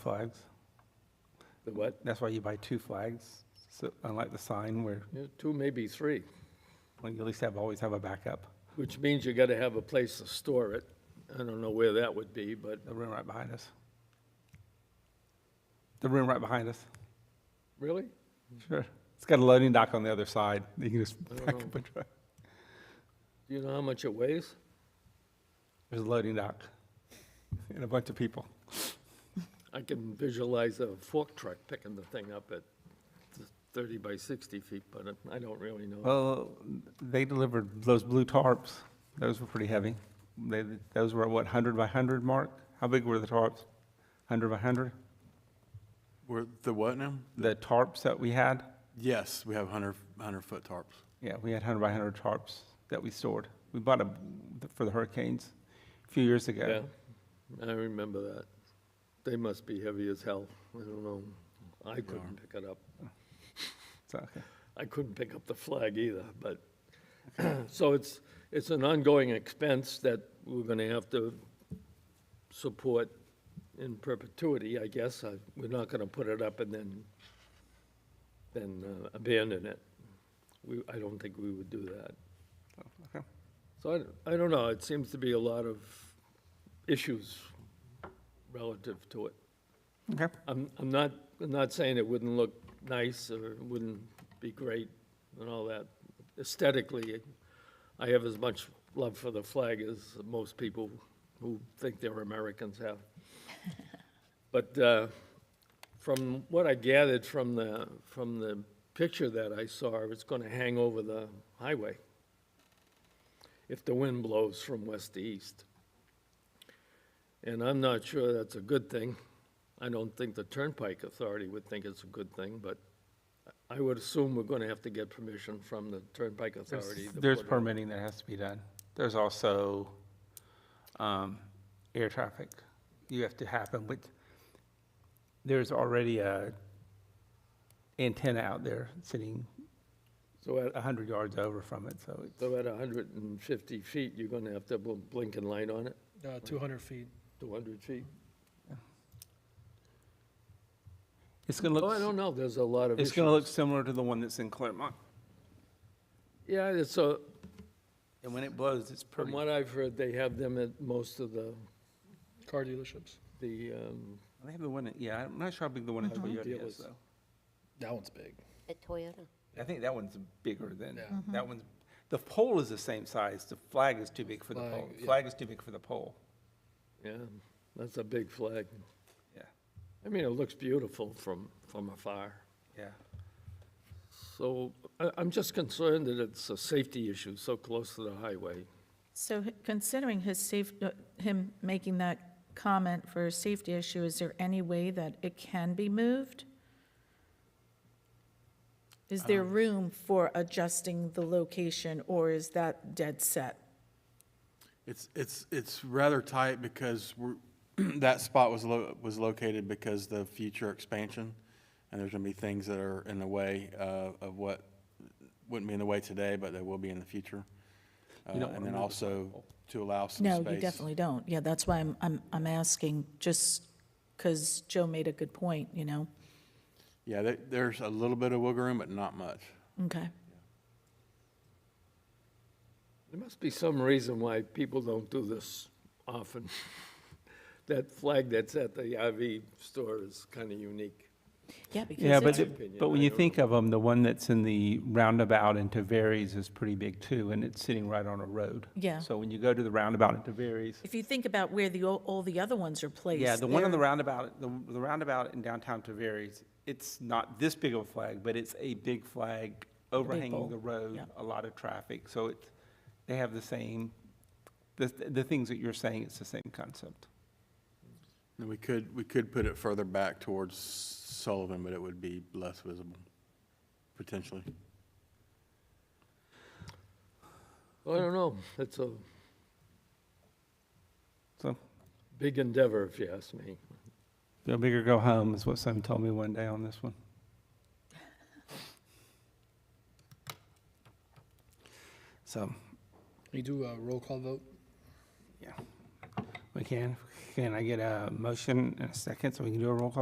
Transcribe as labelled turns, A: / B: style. A: flags.
B: The what?
A: That's why you buy two flags, so unlike the sign where
B: Yeah, two, maybe three,
A: well, you at least have, always have a backup.
B: which means you gotta have a place to store it. I don't know where that would be, but
A: The room right behind us. The room right behind us,
B: really?
A: sure. It's got a loading dock on the other side. You can just
B: don't
A: back
B: know.
A: up and drive.
B: Do you know how much it weighs?
A: There's a loading dock and a bunch of people.
B: I can visualize a fork truck picking the thing up at thirty by sixty feet, but I don't really know.
A: Well, they delivered those blue tarps. Those were pretty heavy. They, those were what, 100 by 100 mark? How big were the tarps? 100 by 100?
C: Were the what now?
A: The tarps that we had?
C: Yes, we have 100, 100-foot tarps.
A: Yeah, we had 100 by 100 tarps that we stored. We bought them for the hurricanes a few years
B: Yeah,
A: ago.
B: I remember that. They must be heavy as hell. I don't know. I couldn't pick it up.
A: So, okay.
B: I couldn't pick up the flag either, but, so it's, it's an ongoing expense that we're gonna have to support in perpetuity, I guess. I- We're not gonna put it up and then, then uh, abandon it. We, I don't think we would do that.
A: okay.
B: So I, don't- I don't know, it seems to be a lot of issues relative to it.
A: Okay.
B: I'm, I'm not, I'm not saying it wouldn't look nice or it wouldn't be great and all that. Aesthetically, I have as much love for the flag as most people who think they're Americans have. But uh, from what I gathered from the, from the picture that I saw, it's going to hang over the highway if the wind blows from west to east. And I'm not sure that's a good thing. I don't think the Turnpike Authority would think it's a good thing, but I would assume we're gonna have to get permission from the Turnpike
A: There's-
B: Authority. to
A: There's
B: put it-
A: permitting that has to be done. There's also um, air traffic. You have to happen with, there's already a antenna out there sitting
B: So at,
A: 100 yards over from it, so it's,
B: so at hundred and fifty feet, you're gonna have to put a blinking light on it,
D: Uh, 200 feet.
B: two hundred feet?
A: it's going to
B: Oh, I
A: look,
B: don't know, there's a lot of
A: it's
B: issues.
A: going to look similar to the one that's in Claremont.
B: Yeah, it's a,
A: And when it blows, it's
B: from
A: pretty.
B: what I've heard, they have them at most of the,
D: Car dealerships.
B: the, um,
A: They have the one, at- yeah, I'm not sure how big the one in Toyota is,
B: Dealers.
A: though.
D: That one's big.
E: At Toyota.
A: I think that one's bigger than,
D: Yeah.
A: that one's, the pole is the same size, the flag is too big for the
D: Flag,
A: pole.
D: yeah.
A: Flag is too big for the pole,
B: yeah, that's a big flag.
A: yeah,
B: I mean, it looks beautiful from, from afar.
A: yeah.
B: So I, I'm just concerned that it's a safety issue so close to the highway.
F: So h- considering his safe, uh, him making that comment for a safety issue, is there any way that it can be moved? Is there
A: Um,
F: room for adjusting the location, or is that dead set?
C: It's, it's, it's rather tight because we're, that spot was lo, was located because the future expansion. And there's gonna be things that are in the way, uh, of what, wouldn't be in the way today, but they will be in the future. Uh,
A: don't wanna
C: and then also to allow some
F: No,
C: space.
F: you definitely don't. Yeah, that's why I'm, I'm, I'm asking, just because Joe made a good point, you know?
C: Yeah, there, there's a little bit of wiggle room, but not much.
F: Okay.
B: There must be some reason why people don't do this often. That flag that's at the RV store is kind of unique.
F: Yeah, because
A: Yeah,
F: it's-
A: but,
B: My opinion,
A: it- but when
B: I
A: you
B: don't
A: think of them, the one that's in the roundabout in Tavares is pretty big too, and it's sitting right on a road.
F: Yeah.
A: So when you go to the roundabout in Tavares,
F: if you think about where the, o- all the other ones are placed.
A: yeah, the one on
F: they're-
A: the roundabout, the, the roundabout in downtown Tavares, it's not this big of a flag, but it's a big flag overhanging
F: pole,
A: the road,
F: yeah.
A: a lot of traffic, so it, they have the same, the, the things that you're saying, it's the same concept.
C: And we could, we could put it further back towards Sullivan, but it would be less visible, potentially.
B: I don't know, it's a
A: So,
B: big endeavor, if you ask me.
A: go big or go home is what someone told me one day on this one. So,
D: Can you do a roll call vote?
A: yeah. We can, can I get a motion and a second so we can do a roll call